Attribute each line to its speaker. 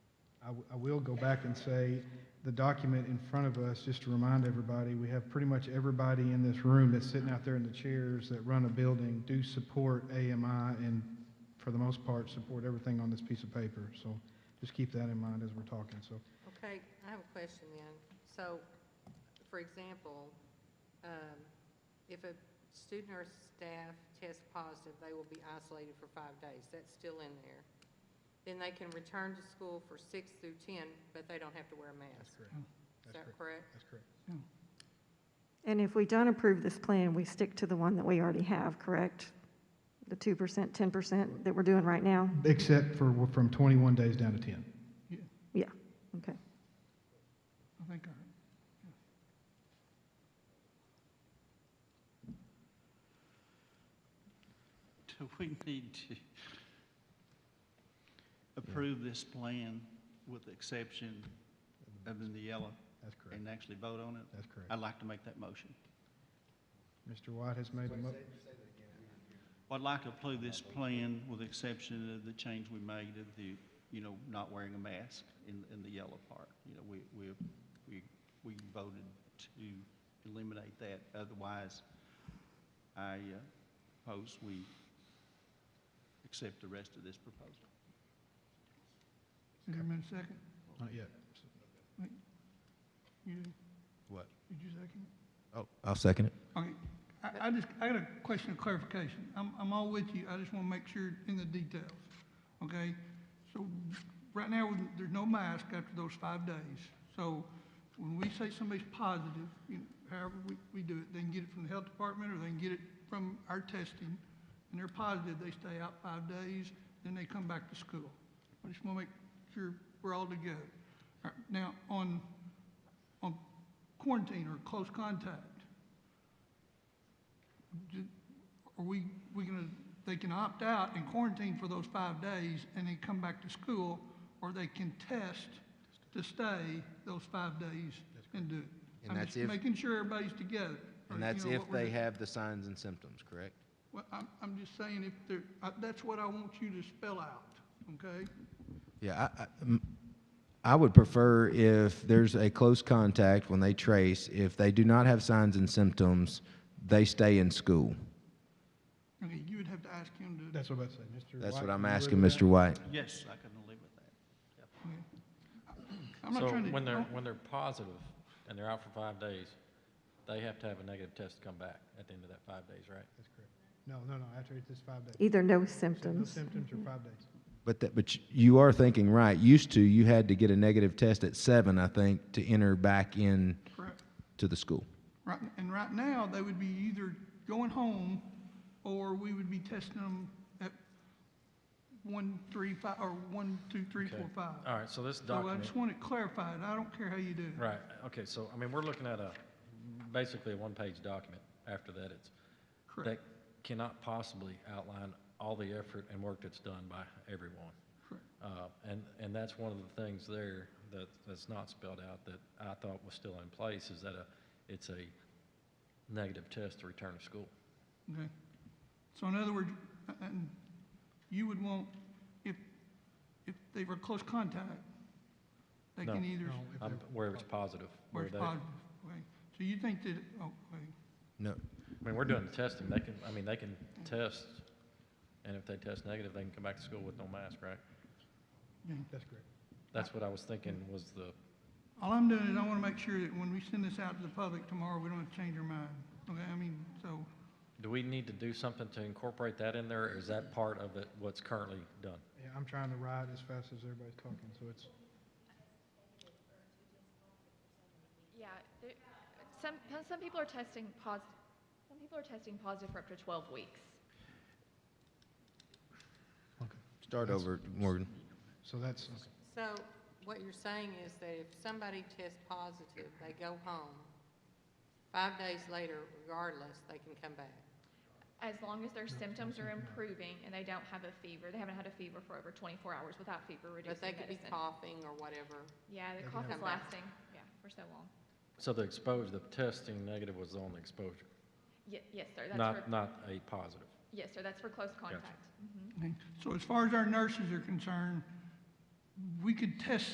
Speaker 1: w- I will go back and say, the document in front of us, just to remind everybody, we have pretty much everybody in this room that's sitting out there in the chairs that run a building do support AMI and, for the most part, support everything on this piece of paper. So just keep that in mind as we're talking, so.
Speaker 2: Okay, I have a question then. So, for example, um, if a student or staff tests positive, they will be isolated for five days. That's still in there. Then they can return to school for six through 10, but they don't have to wear a mask.
Speaker 1: correct.
Speaker 2: Is that correct?
Speaker 1: That's correct.
Speaker 3: And if we don't approve this plan, we stick to the one that we already have, correct? The 2%, 10% that we're doing right now?
Speaker 1: Except for, w- from 21 days down to 10.
Speaker 3: Yeah, okay.
Speaker 4: I think, I-
Speaker 5: Do we need to approve this plan with the exception of in the yellow
Speaker 1: That's correct.
Speaker 5: and actually vote on it?
Speaker 1: That's correct.
Speaker 5: I'd like to make that motion.
Speaker 1: Mr. White has made a mo,
Speaker 5: Well, I'd like to approve this plan with the exception of the change we made of the, you know, not wearing a mask in, in the yellow part. You know, we, we, we, we voted to eliminate that. Otherwise, I uh, propose we accept the rest of this proposal.
Speaker 4: is there a minute second?
Speaker 1: not yet.
Speaker 4: You did?
Speaker 6: What?
Speaker 4: Did you second? it?
Speaker 6: Oh, I'll second it.
Speaker 4: Okay, I, I just, I got a question of clarification. I'm, I'm all with you, I just want to make sure in the details, okay? So, right now, with- there's no mask after those five days. So, when we say somebody's positive, you know, however we, we do it, they can get it from the health department, or they can get it from our testing, and they're positive, they stay out five days, then they come back to school. I just want to make sure we're all together. All right, Now, on, on quarantine or close contact, do- Are we, we gonna, they can opt out and quarantine for those five days and then come back to school, or they can test to stay those five days and do it?
Speaker 6: And
Speaker 4: I'm
Speaker 6: that's
Speaker 4: just
Speaker 6: if-
Speaker 4: Making sure everybody's together. or, you
Speaker 6: And that's
Speaker 4: know,
Speaker 6: if
Speaker 4: what we're
Speaker 6: they
Speaker 4: doing.
Speaker 6: have the signs and symptoms, correct?
Speaker 4: Well, I'm, I'm just saying if they're, I- that's what I want you to spell out, okay?
Speaker 6: Yeah, I- I, m- I would prefer if there's a close contact when they trace, if they do not have signs and symptoms, they stay in school.
Speaker 4: Okay, you would have to ask him to.
Speaker 1: That's what I'm about to say, Mr. White.
Speaker 6: That's what
Speaker 1: you
Speaker 6: I'm
Speaker 1: agree
Speaker 6: asking,
Speaker 1: with that?
Speaker 6: Mr. White.
Speaker 5: Yes, I can live with that.
Speaker 4: I'm not
Speaker 7: So
Speaker 4: trying to.
Speaker 7: when they're,
Speaker 4: don't-
Speaker 7: when they're positive and they're out for five days, they have to have a negative test to come back at the end of that five days, right?
Speaker 1: That's correct. No, no, no, after it's just five days.
Speaker 3: Either no
Speaker 1: No
Speaker 3: symptoms.
Speaker 1: symptoms or five days.
Speaker 6: But that, but you- you are thinking right. Used to, you had to get a negative test at seven, I think, to enter back in
Speaker 4: Correct.
Speaker 6: to the school.
Speaker 4: Right, and right now, they would be either going home, or we would be testing them at one, three, five, or one, two, three,
Speaker 7: Okay.
Speaker 4: four, five.
Speaker 7: All right, so this
Speaker 4: So uh, I
Speaker 7: document,
Speaker 4: just want it clarified, I don't care how you do it.
Speaker 7: right, okay, so, I mean, we're looking at a, basically a one-page document after that. It's, that
Speaker 4: Correct,
Speaker 7: cannot possibly outline all the effort and work that's done by everyone.
Speaker 4: correct.
Speaker 7: Uh, And, and that's one of the things there that, that's not spelled out that I thought was still in place is that a, it's a negative test to return to school.
Speaker 4: Okay. So in other words, uh, and you would want, if, if they were close contact, they
Speaker 7: No.
Speaker 4: can either,
Speaker 1: No, if
Speaker 7: Um,
Speaker 1: they're-
Speaker 7: Where it's positive.
Speaker 4: where it's
Speaker 7: they-
Speaker 4: positive, okay? So you think that, oh, okay,
Speaker 6: No,
Speaker 7: I mean, we're doing the testing, they can, I mean, they can test, and if they test negative, they can come back to school with no mask, right?
Speaker 4: yeah.
Speaker 1: That's correct.
Speaker 7: That's what I was thinking was the,
Speaker 4: All I'm doing is I want to make sure that when we send this out to the public tomorrow, we don't have to change our mind. Okay, I mean, so,
Speaker 7: do we need to do something to incorporate that in there, or is that part of it, what's currently done?
Speaker 1: Yeah, I'm trying to ride as fast as everybody's talking, so it's,
Speaker 8: Yeah, there, some, some people are testing positive, some people are testing positive for up to 12 weeks.
Speaker 6: start over, Morgan.
Speaker 1: so that's, okay.
Speaker 2: So what you're saying is that if somebody tests positive, they go home, five days later, regardless, they can come back.
Speaker 8: As long as their symptoms are improving and they don't have a fever, they haven't had a fever for over 24 hours without fever reducing
Speaker 2: But they could be
Speaker 8: medicine.
Speaker 2: coughing or whatever.
Speaker 8: Yeah,
Speaker 1: They
Speaker 8: the
Speaker 1: could
Speaker 8: cough
Speaker 2: have
Speaker 8: is
Speaker 2: a-
Speaker 8: lasting, yeah, for so long.
Speaker 7: So the exposure, the testing negative was on the exposure,
Speaker 8: Ye- yes, sir, that's
Speaker 7: not,
Speaker 8: for,
Speaker 7: not a positive.
Speaker 8: yes, sir, that's for close contact. Mhm.
Speaker 4: so as far as our nurses are concerned, we could test